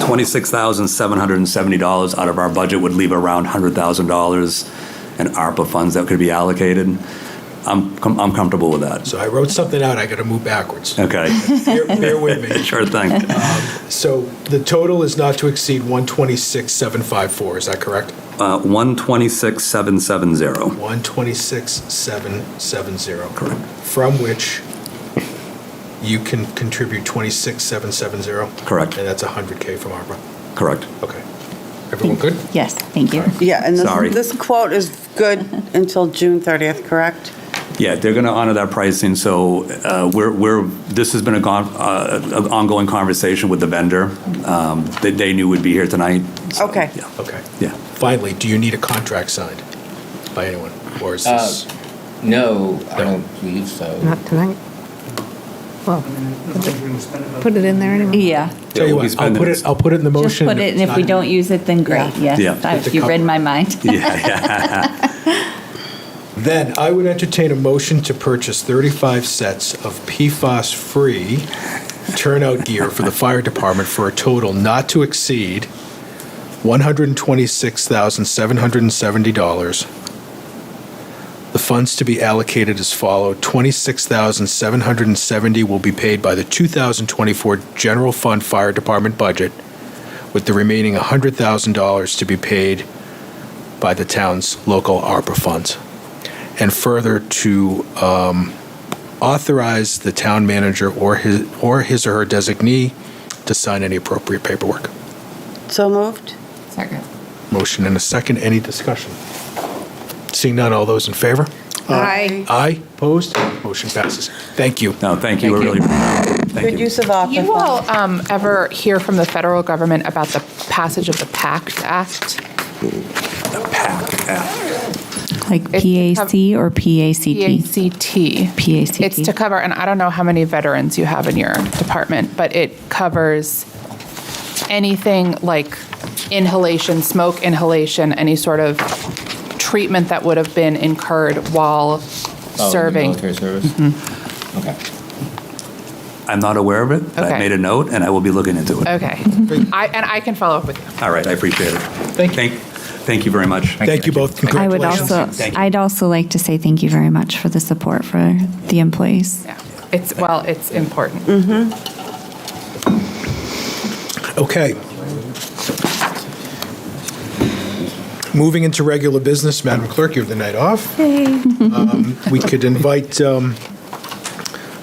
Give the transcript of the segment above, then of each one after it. twenty-six thousand seven hundred and seventy dollars out of our budget would leave around hundred thousand dollars in ARPA funds that could be allocated. I'm, com- I'm comfortable with that. So I wrote something out, I got to move backwards. Okay, Bear bear with me. sure thing. So the total is not to exceed 126,754, is that correct? Uh, one twenty-six seven seven zero. 126,770. Correct. From which you can contribute 26,770? Correct. And that's 100K from ARPA? Correct. Okay. Everyone good? Yes, thank you. Yeah, and Sorry. this- this quote is good until June 30th, correct? Yeah, they're going to honor that pricing, so uh, we're, we're, this has been a gon- uh, an ongoing conversation with the vendor um, that they knew would be here tonight. so, Okay. yeah, Okay. Yeah, Finally, do you need a contract signed by anyone? Or is this, No, I don't believe so. Not tonight. Well, put it in there anyway. Yeah, tell we'll be you what, I'll spending put it. it, I'll put it in the just motion. put it, and if we it's not- don't use it, then great, yes. Yeah. Yeah. I- With the You read my mind. yeah, yeah. Then I would entertain a motion to purchase 35 sets of PFAS-free turnout gear for the fire department for a total not to exceed $126,770. The funds to be allocated as follow: 26770 will be paid by the 2024 General Fund Fire Department budget, with the remaining $100,000 to be paid by the town's local ARPA funds and further to um, authorize the town manager or his, or his or her designee to sign any appropriate paperwork. So moved? Second. Motion and a second, any discussion? Seeing none, all those in favor? Aye. Aye, opposed? Motion passes. Thank you. No, thank you, we really, Good thank you. use of ARPA You funds. will um, ever hear from the federal government about the passage of the PACT Act? Like It's- PAC or PACT? PACT. PACT. It's to cover, and I don't know how many veterans you have in your department, but it covers anything like inhalation, smoke inhalation, any sort of treatment that would have been incurred while Oh, the serving. Military service? Okay. I'm not aware of it, but I Okay. made a note, and I will be looking into it. Okay. I- And I can follow up with you. All right, I appreciate it. Thank you. Thank you very much. Thank you both, I would congratulations. also, I'd also like to say thank you very much for the support for the employees. Yeah. It's, well, it's important. Okay. Moving into regular business, Madam Clerk, you have the night off. Um, We could invite um,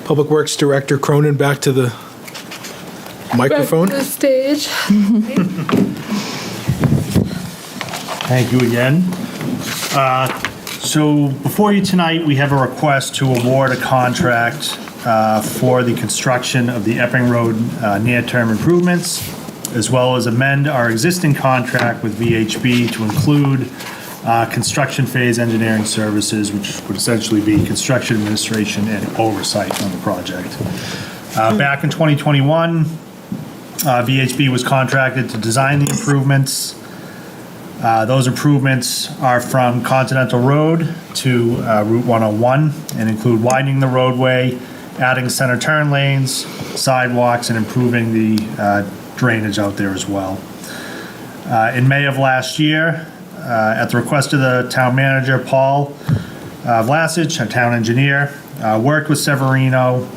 Public Works Director Cronin back to the microphone. Thank you again. Uh, So before you tonight, we have a request to award a contract uh, for the construction of the Epping Road uh, near-term improvements, as well as amend our existing contract with VHB to include uh, construction phase engineering services, which would essentially be construction administration and oversight on the project. Uh, Back in 2021, uh, VHB was contracted to design the improvements, uh, Those improvements are from Continental Road to uh, Route 101 and include widening the roadway, adding center turn lanes, sidewalks, and improving the uh, drainage out there as well. Uh, In May of last year, uh, at the request of the town manager, Paul uh, Vlasic, our town engineer, uh, worked with Severino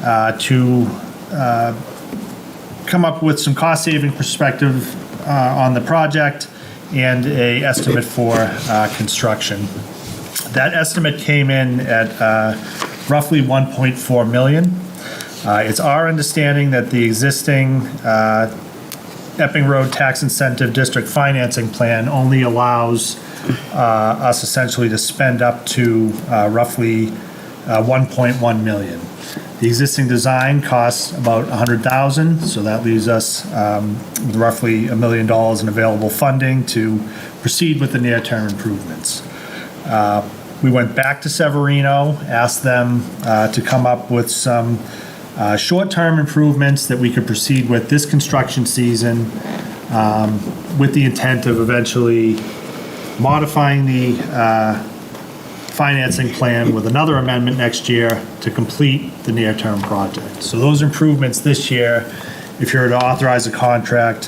uh, to uh, come up with some cost-saving perspective uh, on the project and a estimate for uh, construction. That estimate came in at uh, roughly 1.4 million. Uh, It's our understanding that the existing uh, Epping Road Tax Incentive District Financing Plan only allows uh, us essentially to spend up to uh, roughly uh, 1.1 million. The existing design costs about 100,000, so that leaves us um, with roughly a million dollars in available funding to proceed with the near-term improvements. Uh, We went back to Severino, asked them uh, to come up with some uh, short-term improvements that we could proceed with this construction season um, with the intent of eventually modifying the uh, financing plan with another amendment next year to complete the near-term project. So those improvements this year if you were to authorize a contract